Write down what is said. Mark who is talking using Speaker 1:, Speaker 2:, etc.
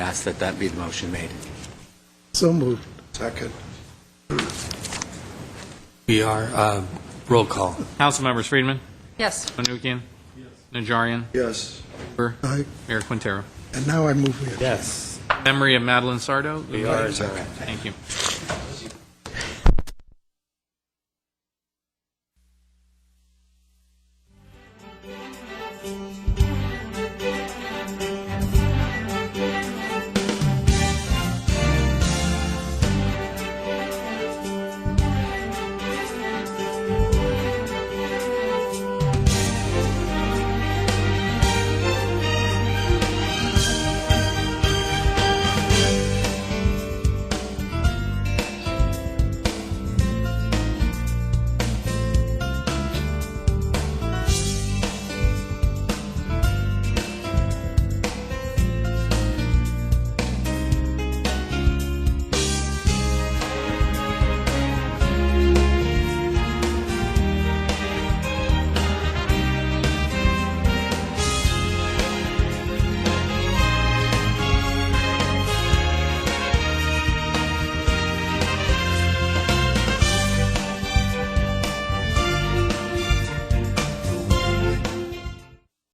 Speaker 1: ask that that be the motion made.
Speaker 2: So moved. Second.
Speaker 3: We are, uh, roll call.
Speaker 4: Council members Friedman,
Speaker 5: Yes.
Speaker 4: Menuchyan, Najarian,
Speaker 2: Yes.
Speaker 4: Burr,
Speaker 2: Aye.
Speaker 4: Mayor Quintero.
Speaker 2: And now I move with.
Speaker 3: Yes.
Speaker 4: Memory of Madeline Sardo.
Speaker 3: We are,
Speaker 4: Thank you.